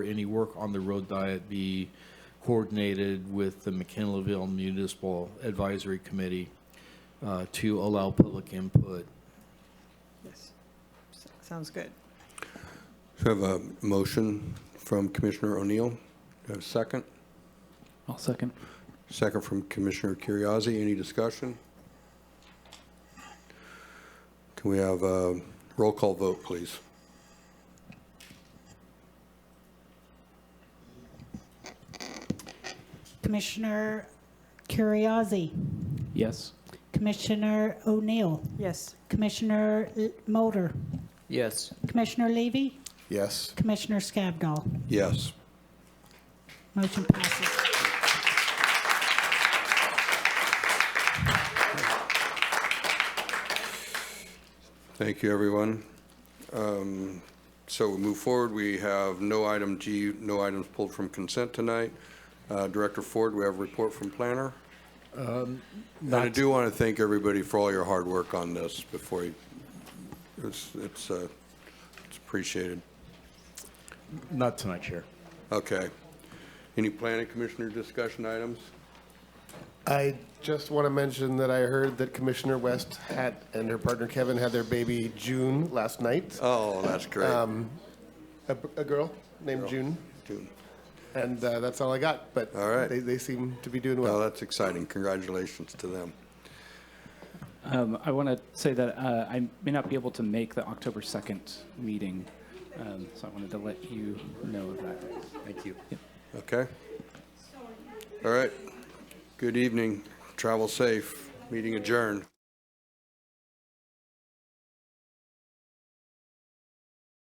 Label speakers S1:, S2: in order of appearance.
S1: any work on the road diet be coordinated with the McKinleyville Municipal Advisory Committee uh, to allow public input.
S2: Yes. S- Sounds good.
S3: So I have a motion from Commissioner O'Neill. Do I have a second?
S4: I'll second.
S3: Second from Commissioner Curriasi. Any discussion? Can we have a roll call vote, please?
S5: Commissioner Curriasi,
S4: Yes.
S5: Commissioner O'Neill,
S2: Yes.
S5: Commissioner L- Mulder,
S4: Yes.
S5: Commissioner Levy,
S3: Yes.
S5: Commissioner Scavdall.
S3: Yes.
S5: Motion passes.
S3: Thank you, everyone. Um, So we move forward. We have no item G, no items pulled from consent tonight. Uh, Director Ford, we have a report from planner. And I do want to thank everybody for all your hard work on this before you, it's, it's uh, it's appreciated.
S1: Not tonight, Chair.
S3: Okay. Any planning commissioner discussion items?
S6: I just want to mention that I heard that Commissioner West had, and her partner Kevin had their baby June last night,
S3: Oh, that's great.
S6: a, a girl named June,
S3: Dude.
S6: and uh, that's all I got. But
S3: All right.
S6: they, they seem to be doing
S3: Well,
S6: well.
S3: that's exciting. Congratulations to them.
S4: Um, I want to say that uh, I may not be able to make the October 2nd meeting, um, so I wanted to let you know of that. Thank you.
S3: Okay? All right. Good evening. Travel safe. Meeting adjourned.